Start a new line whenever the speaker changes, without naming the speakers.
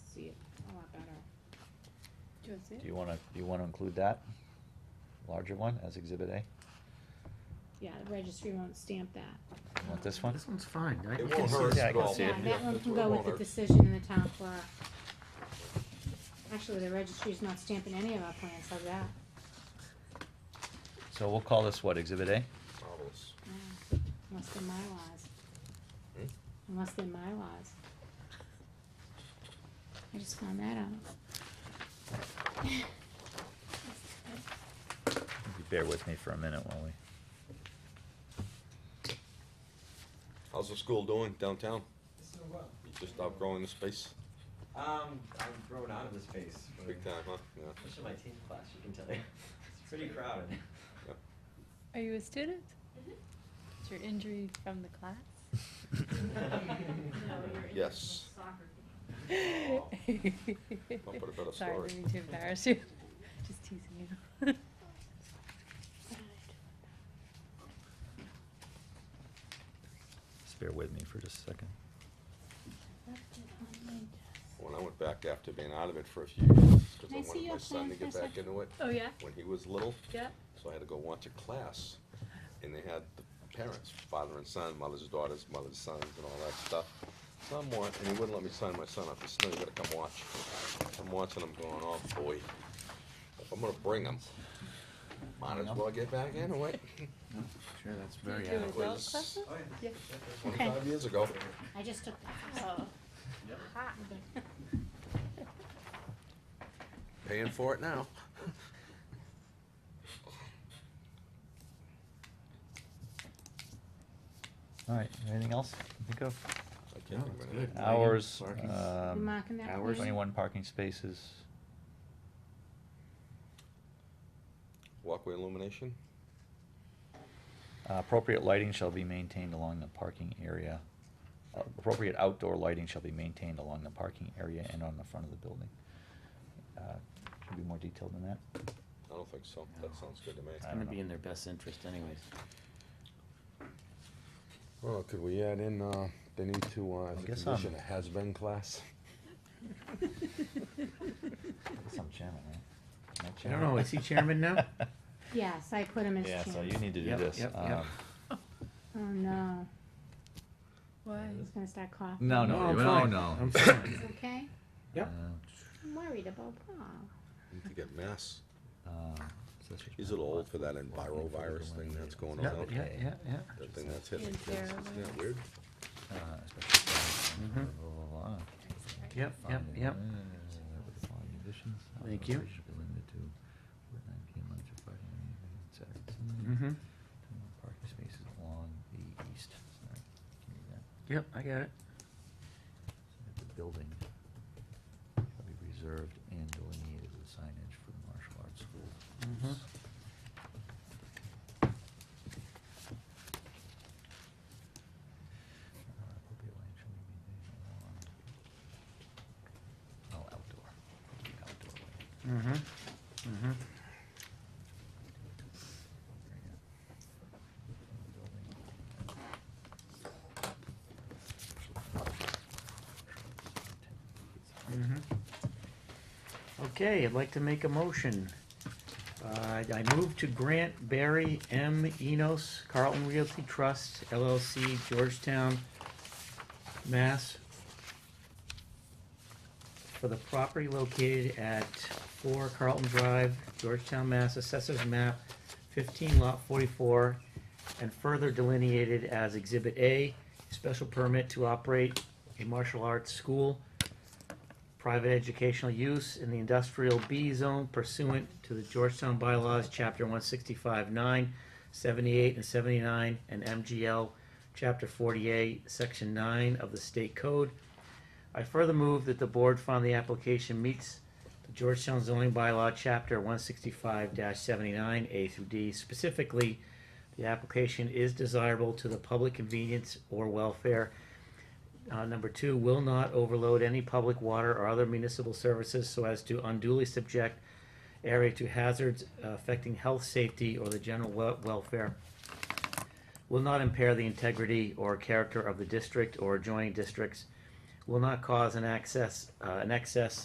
Do you
Do you wanna, do you wanna include that? Larger one as exhibit A?
Yeah, the registry won't stamp that.
You Want this one?
This one's fine. I
It
can
won't
see
hurt
that.
at all.
Yeah,
Yeah,
that one
that's
can
what
go
I
with the
wanted.
decision in the town clerk. Actually, the registry's not stamping any of our plans like that.
So we'll call this what, exhibit A?
Marvelous.
No, Unless they're my laws,
Hmm?
unless they're my laws. I just found that out.
If you Bear with me for a minute while we,
How's the school doing downtown?
It's doing well.
You just outgrowing the space?
uh, Um, I've grown out of this space. but-
Big time, huh? Yeah.
Especially my teen class, you can tell. It's pretty crowded.
Yeah.
Are you a student?
Mm-hmm.
Is your injury from the
Yes.
class?
I'll put a better
Sorry,
story.
didn't mean to embarrass you. Just teasing you.
just bear with me for just a second.
When I went back after being out of it for a few years, because
Can I
I
see
wanted
your
my son to
plan
get
for a
back
second?
into it.
Oh, yeah?
When he was little,
Yeah?
so I had to go watch a class, and they had the parents, father and son, mothers, daughters, mothers, sons, and all that stuff. So I'm watching, and he wouldn't let me sign my son up, he said, no, you gotta come watch. I'm watching, I'm going, oh boy, if I'm gonna bring him, might as well get back into it.
Sure, that's
Do you
very
do
adequate.
adequate.
adult
Was-
classes?
Oh, yeah.
Yeah.
Okay.
Twenty-five years ago.
I just took that.
Oh.
Yep.
Hot.
Paying for it now.
Alright, anything else to think of?
I can't think of
that's
anything.
good. Lighting,
Hours,
parking.
um,
Marking that
hours,
plan.
twenty-one parking spaces.
Walkway illumination,
Uh, Appropriate lighting shall be maintained along the parking area. Uh, Appropriate outdoor lighting shall be maintained along the parking area and on the front of the building. Uh, Can you be more detailed than that?
I don't think so, that sounds good to me.
It's
I
gonna
don't
be
know.
in their best interest anyways.
Well, could we add in, uh, the need to, uh,
I guess, um,
a has-been class?
That's some chairman, right? Am
I don't know, is he chairman now?
Yes, I put him as
Yeah,
chair.
so you need to do
Yep,
this.
yep, yep.
Um,
Oh, no.
Why?
He's gonna start coughing.
No, no,
I'm
no,
fine.
no.
I'm
He's
fine.
okay?
Yep.
I'm worried about Paul.
Need to get mass.
Uh, uh, so it's-
He's a little old for that envirovirus thing that's going on
Yeah,
out
yeah,
there.
yeah, yeah.
That thing that's hitting kids, isn't that weird?
Uh, especially-
Mhm.
blah, blah, blah, blah.
Yep, yep,
Finding
yep.
that with the following conditions, how
Thank
the
you.
operation should be limited to nine PM Monday through Friday, and Saturday, Sunday.
Mm-hmm.
Twenty-one Parking spaces along the east, sorry, can you read that?
Yep, I got it.
So that The building shall be reserved and delineated with signage for the martial arts school.
Mhm.
Uh, appropriate lighting shall be maintained along- Oh, outdoor, Appropriate outdoor lighting.
Mm-hmm, mm-hmm. Mhm. Okay, I'd like to make a motion. Uh, I move to grant Barry M. Enos Carlton Realty Trust LLC Georgetown, Mass. For the property located at four Carlton Drive, Georgetown, Mass, Assessors Map fifteen lot forty-four, and further delineated as Exhibit A, special permit to operate a martial arts school private educational use in the industrial B zone pursuant to the Georgetown bylaws, chapter one sixty-five, nine, seventy-eight and seventy-nine, and MGL, chapter forty-eight, section nine of the state code. I further move that the board find the application meets the Georgetown zoning bylaw, chapter one sixty-five seventy-nine, A through D. Specifically, the application is desirable to the public convenience or welfare uh, number two, will not overload any public water or other municipal services so as to unduly subject area to hazards uh, affecting health, safety, or the general wel- welfare. Will not impair the integrity or character of the district or adjoining districts. Will not cause an access, uh, an excess